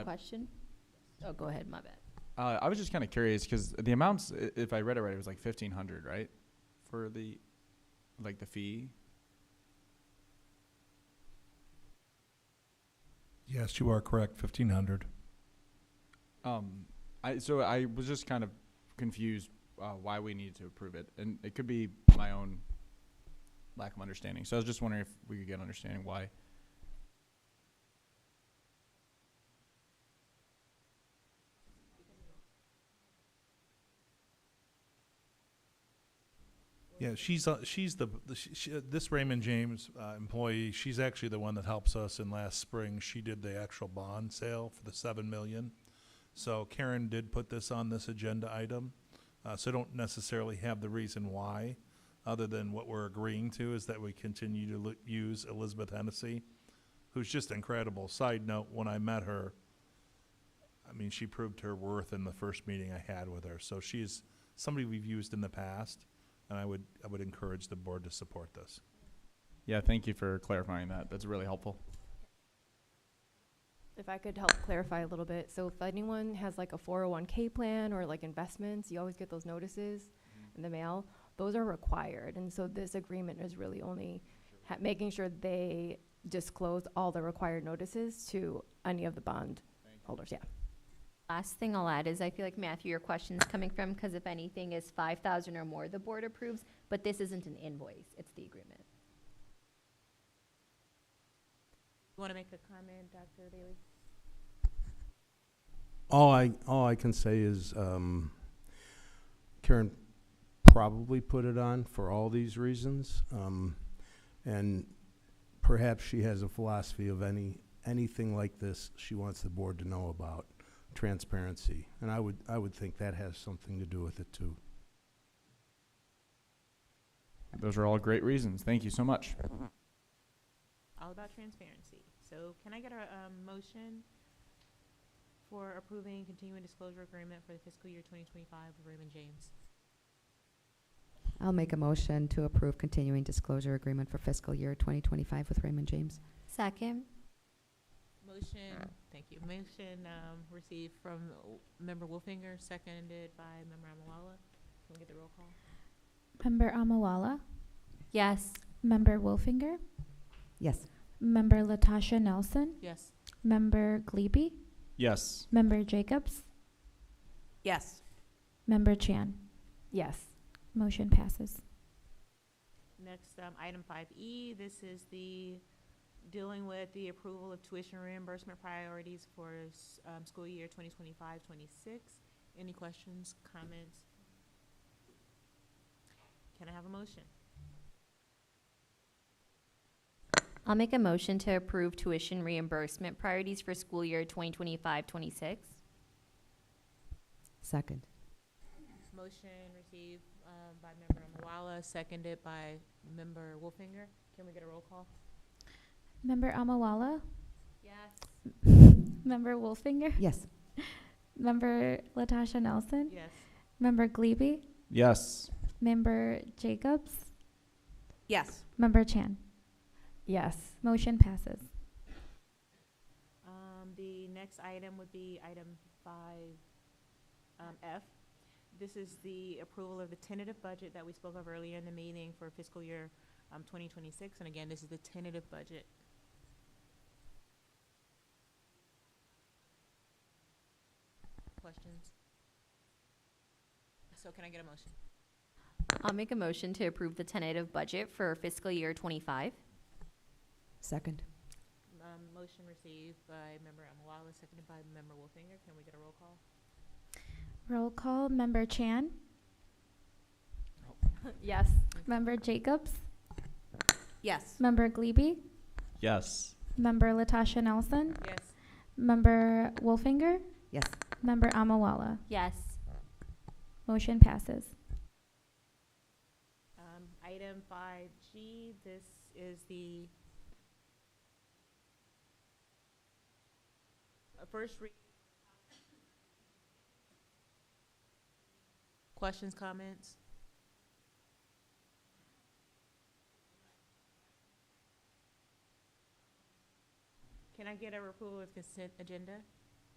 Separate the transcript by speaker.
Speaker 1: I-
Speaker 2: question? Oh, go ahead, my bad.
Speaker 1: Uh, I was just kind of curious because the amounts, i- if I read it right, it was like fifteen hundred, right, for the, like the fee.
Speaker 3: Yes, you are correct, fifteen hundred.
Speaker 1: Um, I so I was just kind of confused uh, why we needed to approve it, and it could be my own lack of understanding. So I was just wondering if we could get understanding why.
Speaker 3: Yeah, she's, uh, she's the, the- she- she- uh, this Raymond James uh, employee, she's actually the one that helps us in last spring. She did the actual bond sale for the seven million. So Karen did put this on this agenda item, uh, so I don't necessarily have the reason why, other than what we're agreeing to is that we continue to lo- use Elizabeth Hennessy, who's just incredible. Side note, when I met her, I mean, she proved her worth in the first meeting I had with her. So she's somebody we've used in the past, and I would I would encourage the board to support this.
Speaker 1: Yeah, thank you for clarifying that. That's really helpful.
Speaker 4: If I could help clarify a little bit, so if anyone has like a four oh one K plan or like investments, you always get those notices in the mail. Those are required, and so this agreement is really only ha- making sure they disclose all the required notices to any of the bond holders, yeah.
Speaker 2: Last thing I'll add is I feel like Matthew, your question's coming from, because if anything is five thousand or more, the board approves, but this isn't an invoice, it's the agreement.
Speaker 5: You want to make a comment, Dr. Bailey?
Speaker 6: All I, all I can say is, um, Karen probably put it on for all these reasons. Um, and perhaps she has a philosophy of any, anything like this she wants the board to know about, transparency. And I would, I would think that has something to do with it too.
Speaker 1: Those are all great reasons. Thank you so much.
Speaker 5: All about transparency. So can I get a, um, motion for approving continuing disclosure agreement for the fiscal year twenty twenty-five with Raymond James?
Speaker 7: I'll make a motion to approve continuing disclosure agreement for fiscal year 2025 with Raymond James.
Speaker 2: Second?
Speaker 5: Motion, thank you. Motion, um, received from uh, member Wolfinger, seconded by member Amawala. Can we get the roll call?
Speaker 8: Member Amawala,
Speaker 2: Yes.
Speaker 8: Member Wolfinger,
Speaker 7: Yes.
Speaker 8: Member Latasha Nelson,
Speaker 5: Yes.
Speaker 8: Member Glebe,
Speaker 1: Yes.
Speaker 8: Member Jacobs,
Speaker 5: Yes.
Speaker 8: Member Chan.
Speaker 4: Yes,
Speaker 8: Motion passes.
Speaker 5: Next, um, item five E, this is the dealing with the approval of tuition reimbursement priorities for, s- um, school year 2025-26. Any questions, comments? Can I have a motion?
Speaker 2: I'll make a motion to approve tuition reimbursement priorities for school year 2025-26.
Speaker 7: Second.
Speaker 5: Motion received, um, by member Mawala, seconded by member Wolfinger. Can we get a roll call?
Speaker 8: Member Amawala,
Speaker 2: Yes.
Speaker 8: Member Wolfinger,
Speaker 7: Yes.
Speaker 8: Member Latasha Nelson,
Speaker 5: Yes.
Speaker 8: Member Glebe,
Speaker 1: Yes.
Speaker 8: Member Jacobs,
Speaker 5: Yes.
Speaker 8: Member Chan.
Speaker 4: yes,
Speaker 8: Motion passes.
Speaker 5: Um, the next item would be item five, um, F. This is the approval of the tentative budget that we spoke of earlier in the meeting for fiscal year, um, twenty twenty-six, and again, this is the tentative budget. Questions? So can I get a motion?
Speaker 2: I'll make a motion to approve the tentative budget for fiscal year twenty-five.
Speaker 7: Second.
Speaker 5: Um, motion received by member Amawala, seconded by member Wolfinger, can we get a roll call?
Speaker 8: Roll call, Member Chan,
Speaker 4: yes.
Speaker 8: Member Jacobs,
Speaker 2: Yes.
Speaker 8: Member Glebe,
Speaker 1: Yes.
Speaker 8: Member Latasha Nelson,
Speaker 5: Yes.
Speaker 8: Member Wolfinger,
Speaker 7: Yes.
Speaker 8: Member Amawala.
Speaker 2: Yes.
Speaker 8: Motion passes.
Speaker 5: Um, item five G, this is the uh, first read. Questions, comments? Can I get a approval of consent agenda?